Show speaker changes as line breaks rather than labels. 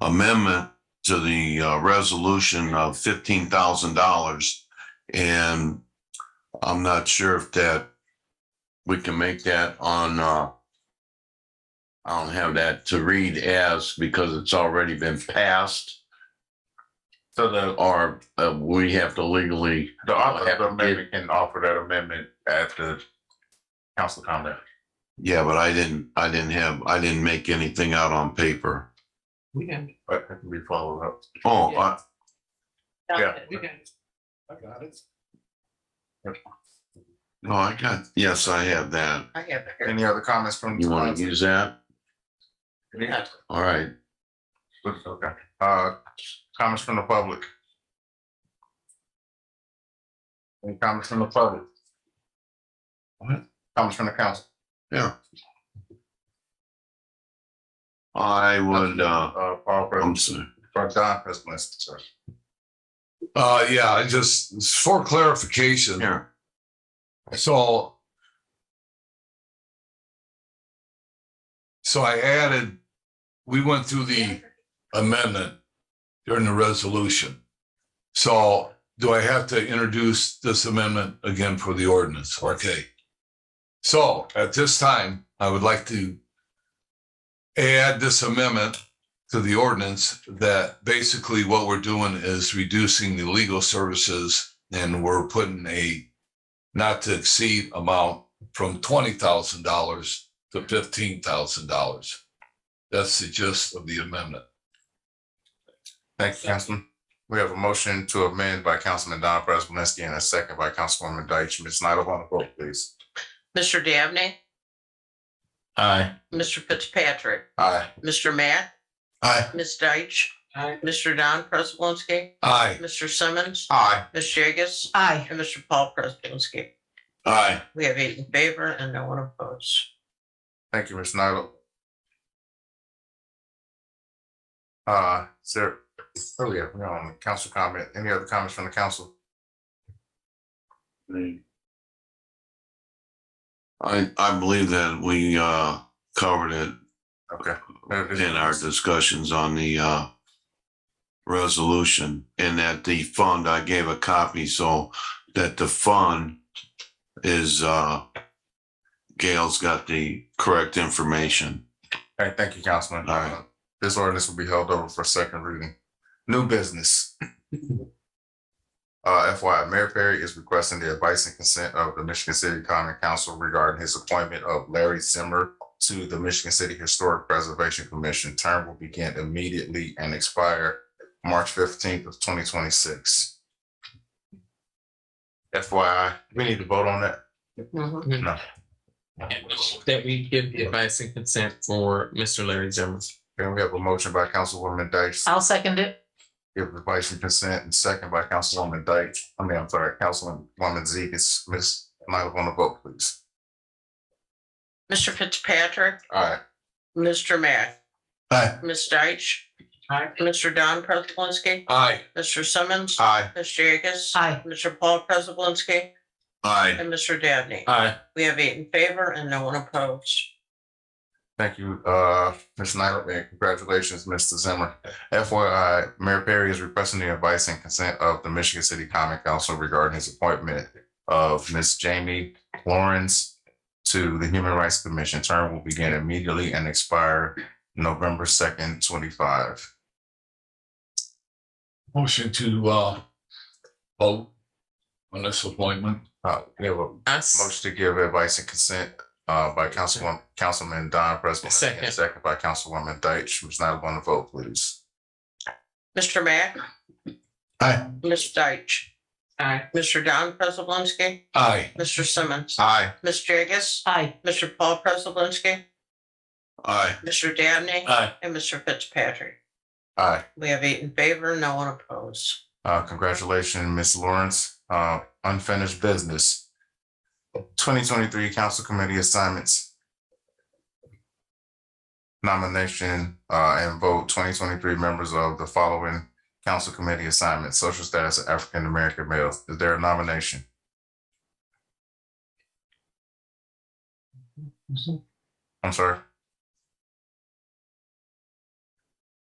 amendment to the uh, resolution of fifteen thousand dollars. And I'm not sure if that, we can make that on, uh, I don't have that to read as because it's already been passed
So the,
or uh, we have to legally,
the author of the amendment can offer that amendment at the council comment.
yeah, but I didn't, I didn't have, I didn't make anything out on paper.
We can,
But it can be followed up.
Oh, I,
Yeah.
we can.
I got it.
oh, I got, yes, I have that.
I have it here.
Any other comments from?
You want to use that?
Yeah.
All right.
Okay. Uh, comments from the public? Any comments from the public?
What?
Comments from the council?
I would, uh,
Uh, Paul,
I'm
for,
sorry.
for Don, has listed, sir.
Uh, yeah, I just it's for clarification,
Here,
so. So I added, we went through the amendment during the resolution. So do I have to introduce this amendment again for the ordinance? Okay. So at this time, I would like to add this amendment to the ordinance that basically what we're doing is reducing the legal services and we're putting a not to exceed amount from twenty thousand dollars to fifteen thousand dollars. That's the gist of the amendment.
Thank you, Councilman. We have a motion to amend by Councilman Don Prespolinski and a second by Councilwoman Deitch. Ms. Nyla, on the vote, please.
Mr. Dabney,
Aye.
Mr. Fitzpatrick,
Aye.
Mr. Matt,
Aye.
Ms. Deitch,
Aye.
Mr. Don Prespolinski,
Aye.
Mr. Simmons,
Aye.
Ms. Jagus,
Aye.
and Mr. Paul Prespolinski.
Aye.
We have eight in favor and no one opposed.
Thank you, Ms. Nyla. Uh, oh, sir, earlier, we're on council comment. Any other comments from the council?
I, I believe that we, uh, covered it
Okay.
in our discussions on the, uh, resolution and that the fund, I gave a copy so that the fund is, uh, Gail's got the correct information.
All right, thank you, Councilman. Uh,
All right.
This ordinance will be held over for second reading. New business. Uh, FYI, Mayor Perry is requesting the advice and consent of the Michigan City Common Council regarding his appointment of Larry Simmer to the Michigan City Historic Preservation Commission. Term will begin immediately and expire March fifteenth of twenty twenty-six. FYI, we need to vote on that.
Mm-hmm.
That we give the advice and consent for Mr. Larry Zimmer.
Then we have a motion by Councilwoman Deitch.
I'll second it.
Give advice and consent and second by Councilwoman Dyke. I mean, I'm sorry, Councilwoman Zeke is Miss Nyla on the vote, please.
Mr. Fitzpatrick,
All right,
Mr. Matt,
Aye.
Ms. Deitch,
Aye.
Mr. Don Prespolinski,
Aye.
Mr. Simmons,
aye.
Ms. Jagus,
Aye.
Mr. Paul Prespolinski,
Aye.
and Mr. Dabney.
Aye.
We have eight in favor and no one opposed.
Thank you, uh, Ms. Nyla, and congratulations, Mr. Zimmer. FYI, Mayor Perry is requesting the advice and consent of the Michigan City Common Council regarding his appointment of Miss Jamie Lawrence to the Human Rights Commission. Term will begin immediately and expire November second, twenty-five.
Motion to, uh, vote on this appointment.
Uh, we have a
Us.
Motion to give advice and consent uh by Councilwoman, Councilman Don Presley.
Second.
Second by Councilwoman Deitch. Ms. Nyla, on the vote, please.
Mr. Matt,
Aye.
Ms. Deitch,
Aye.
Mr. Don Prespolinski,
Aye.
Mr. Simmons,
Aye.
Ms. Jagus,
Aye.
Mr. Paul Prespolinski,
Aye.
Mr. Dabney,
Aye.
and Mr. Fitzpatrick.
Aye.
We have eight in favor, no one opposed.
Uh, congratulations, Ms. Lawrence. Uh, unfinished business. Twenty twenty-three council committee assignments. Nomination uh and vote twenty twenty-three members of the following council committee assignments, social status of African American males. Is there a nomination? I'm sorry.